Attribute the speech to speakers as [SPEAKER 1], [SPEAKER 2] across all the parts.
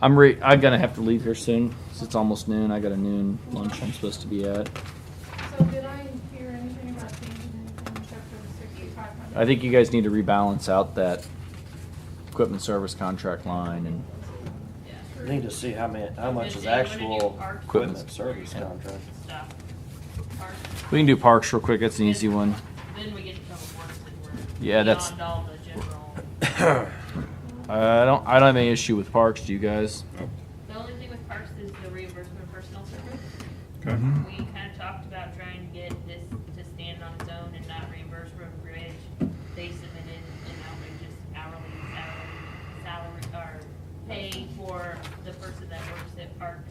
[SPEAKER 1] I'm re- I'm gonna have to leave here soon 'cause it's almost noon. I got a noon lunch I'm supposed to be at.
[SPEAKER 2] So did I hear anything about changing anything in chapter sixty-five hundred?
[SPEAKER 1] I think you guys need to rebalance out that equipment service contract line and
[SPEAKER 3] Yeah.
[SPEAKER 4] We Need to see how many, how much is
[SPEAKER 3] Busy, what did you
[SPEAKER 4] actual
[SPEAKER 3] park?
[SPEAKER 4] equipment service contract.
[SPEAKER 3] Stuff. Park.
[SPEAKER 1] we can do parks real quick. That's an easy one.
[SPEAKER 3] Then we get to public works and we're.
[SPEAKER 1] Yeah, that's-
[SPEAKER 3] Beyond all the general.
[SPEAKER 1] I don't I don't have any issue with parks. Do you guys?
[SPEAKER 3] The only thing with parks is the reimbursement of personnel service.
[SPEAKER 5] Okay.
[SPEAKER 3] We kinda talked about trying to get this to stand on its own and not reimburse Road and Bridge. They submitted an outrageous hourly, hourly salary, or pay for the person that works at parks.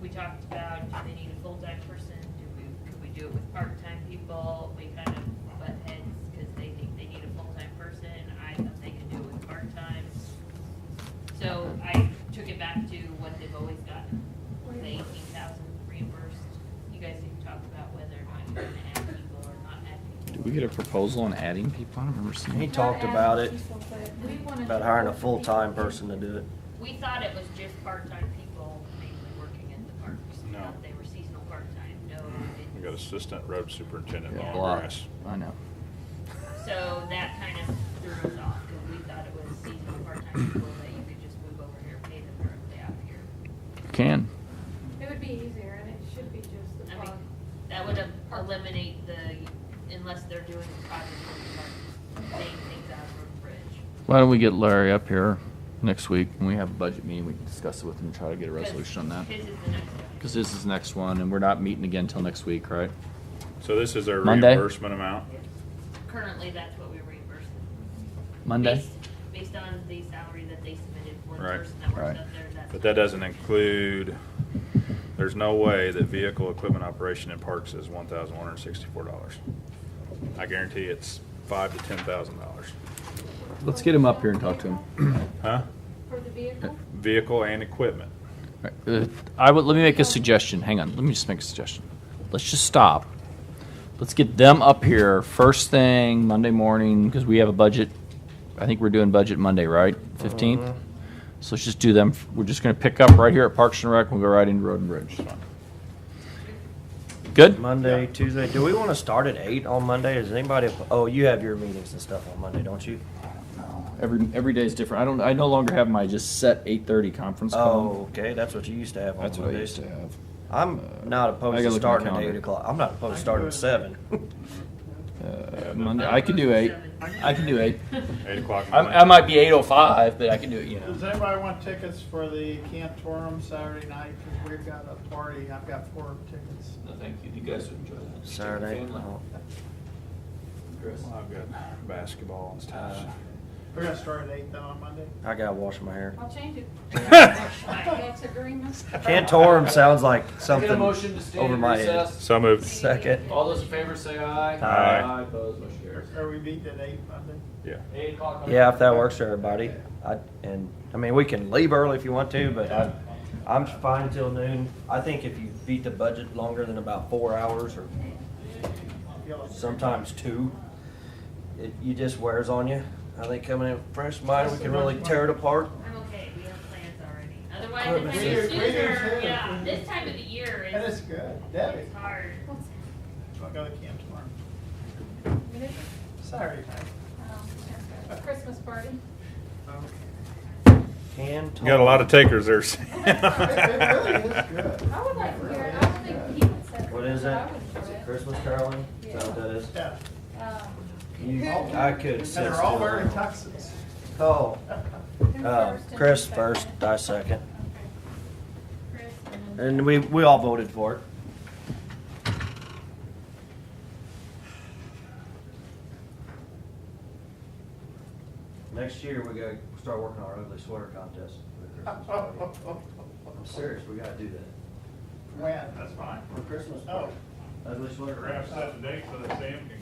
[SPEAKER 3] We talked about, do they need a full-time person, do we, could we do it with part-time people? We kind of butt heads, cause they think they need a full-time person, I thought they could do it with part-time. So I took it back to what they've always gotten, the eighteen thousand reimbursed. You guys can talk about whether or not you're gonna add people or not add people.
[SPEAKER 1] Did we get a proposal on adding people? I don't remember
[SPEAKER 4] He
[SPEAKER 1] seeing.
[SPEAKER 4] talked about it,
[SPEAKER 2] We wanted
[SPEAKER 4] about
[SPEAKER 2] to-
[SPEAKER 4] hiring a full-time person to do it.
[SPEAKER 3] We thought it was just part-time people mainly working at the parks.
[SPEAKER 5] No. Mm,
[SPEAKER 3] Thought They were seasonal part-time, no.
[SPEAKER 5] We got assistant road superintendent
[SPEAKER 1] Yeah,
[SPEAKER 5] on
[SPEAKER 1] a lot.
[SPEAKER 5] grass.
[SPEAKER 1] I know.
[SPEAKER 3] So that kind of threw us off, because we thought it was seasonal part-time people that you could just move over here, pay them directly out here.
[SPEAKER 1] Can.
[SPEAKER 2] It would be easier and it should be just the
[SPEAKER 3] I
[SPEAKER 2] plug.
[SPEAKER 3] mean, that would em- eliminate the, unless they're doing the project from the park, paying things out from the bridge.
[SPEAKER 1] Why don't we get Larry up here next week when we have a budget meeting? We can discuss it with him and try to get a resolution on that.
[SPEAKER 3] His is the next one.
[SPEAKER 1] Because this is the next one, and we're not meeting again till next week, right?
[SPEAKER 5] So this is our
[SPEAKER 1] Monday?
[SPEAKER 5] reimbursement amount?
[SPEAKER 3] Currently, that's what we reimburse.
[SPEAKER 1] Monday?
[SPEAKER 3] Based- Based on the salary that they submitted for the
[SPEAKER 5] Right.
[SPEAKER 3] person that
[SPEAKER 1] Right.
[SPEAKER 3] works up there, that's.
[SPEAKER 5] But that doesn't include, there's no way that vehicle equipment operation in parks is one thousand one hundred and sixty-four dollars. I guarantee it's five to ten thousand dollars.
[SPEAKER 1] Let's get him up here and talk to him.
[SPEAKER 5] Huh?
[SPEAKER 2] For the vehicle?
[SPEAKER 5] Vehicle and equipment.
[SPEAKER 1] Uh, I would, let me make a suggestion. Hang on, let me just make a suggestion. Let's just stop. Let's get them up here first thing Monday morning, because we have a budget. I think we're doing budget Monday, right? Fifteenth? So let's just do them. We're just gonna pick up right here at Parks and Rec, we'll go right into Road and Bridge. Good?
[SPEAKER 4] Monday,
[SPEAKER 5] Yeah.
[SPEAKER 4] Tuesday, do we wanna start at eight on Monday? Is anybody, oh, you have your meetings and stuff on Monday, don't you?
[SPEAKER 1] Every, every day is different. I don't, I no longer have my just set eight thirty conference
[SPEAKER 4] Oh,
[SPEAKER 1] call.
[SPEAKER 4] okay, that's what you used to have on
[SPEAKER 1] That's what I used
[SPEAKER 4] Mondays.
[SPEAKER 1] to have. Uh,
[SPEAKER 4] I'm not
[SPEAKER 1] I
[SPEAKER 4] opposed
[SPEAKER 1] gotta
[SPEAKER 4] to
[SPEAKER 1] look at my
[SPEAKER 4] starting at
[SPEAKER 1] calendar.
[SPEAKER 4] eight o'clock. I'm not opposed to starting at seven.
[SPEAKER 1] Uh, Monday, I can do eight. I can do eight.
[SPEAKER 5] Eight o'clock. in the
[SPEAKER 1] I, I
[SPEAKER 5] morning.
[SPEAKER 1] might be eight oh five, but I can do it, you know.
[SPEAKER 6] Does anybody want tickets for the Cantorum Saturday night? Because we've got a party. I've got four tickets.
[SPEAKER 1] No, thank you. You guys would enjoy that.
[SPEAKER 4] Saturday. Oh.
[SPEAKER 1] Chris.
[SPEAKER 5] Well, I've got basketball and stuff.
[SPEAKER 6] We're gonna start at eight though on Monday.
[SPEAKER 4] I gotta wash my hair.
[SPEAKER 2] I'll change it. That's agreement.
[SPEAKER 4] Cantorum sounds like
[SPEAKER 1] Get a motion
[SPEAKER 4] something
[SPEAKER 1] to stand
[SPEAKER 4] over
[SPEAKER 1] in
[SPEAKER 4] my head.
[SPEAKER 1] recess.
[SPEAKER 5] So moved.
[SPEAKER 4] Second.
[SPEAKER 1] All those in favor say aye.
[SPEAKER 4] Aye.
[SPEAKER 1] opposed, motion carries.
[SPEAKER 6] Are we meeting at eight Monday?
[SPEAKER 5] Yeah.
[SPEAKER 1] Eight o'clock. on-
[SPEAKER 4] Yeah, if that works for everybody. I, and, I mean, we can leave early if you want to, but I, I'm fine until noon. I think if you beat the budget longer than about four hours or
[SPEAKER 6] Yellow.
[SPEAKER 4] sometimes two, it, you just wears on you. I think coming in fresh mind, we can really tear it apart.
[SPEAKER 3] I'm okay, we have plans already.
[SPEAKER 4] Good.
[SPEAKER 3] Otherwise,
[SPEAKER 4] We do-
[SPEAKER 3] this time of
[SPEAKER 6] we do
[SPEAKER 3] year,
[SPEAKER 6] too.
[SPEAKER 3] yeah, this time of the year
[SPEAKER 6] And it's
[SPEAKER 3] is,
[SPEAKER 6] good. Debbie,
[SPEAKER 3] it's hard.
[SPEAKER 6] I'll go to Cantorum Saturday night.
[SPEAKER 2] Um, Christmas party.
[SPEAKER 4] Can
[SPEAKER 5] You got a lot of takers there.
[SPEAKER 6] It really is good.
[SPEAKER 2] I would like to hear it. I don't think he would set it.
[SPEAKER 4] What is
[SPEAKER 2] but I
[SPEAKER 4] that?
[SPEAKER 2] would enjoy
[SPEAKER 4] Is it
[SPEAKER 2] it.
[SPEAKER 4] Christmas caroling? Is that what that is?
[SPEAKER 6] Yeah.
[SPEAKER 2] Um,
[SPEAKER 4] You- I could
[SPEAKER 6] And
[SPEAKER 4] sit
[SPEAKER 6] they're all
[SPEAKER 4] still.
[SPEAKER 6] wearing tuxes.
[SPEAKER 4] Oh,
[SPEAKER 2] who
[SPEAKER 4] uh,
[SPEAKER 2] first and
[SPEAKER 4] Chris
[SPEAKER 2] who
[SPEAKER 4] first,
[SPEAKER 2] second?
[SPEAKER 4] I second.
[SPEAKER 2] Okay. Chris and then-
[SPEAKER 4] And we, we all voted for it. Next year, we gotta start working on our ugly sweater contest for the Christmas party. I'm serious, we gotta do that.
[SPEAKER 6] When? That's fine.
[SPEAKER 4] For Christmas
[SPEAKER 6] Oh.
[SPEAKER 4] party, ugly sweater. contest.
[SPEAKER 5] the date so that Sam can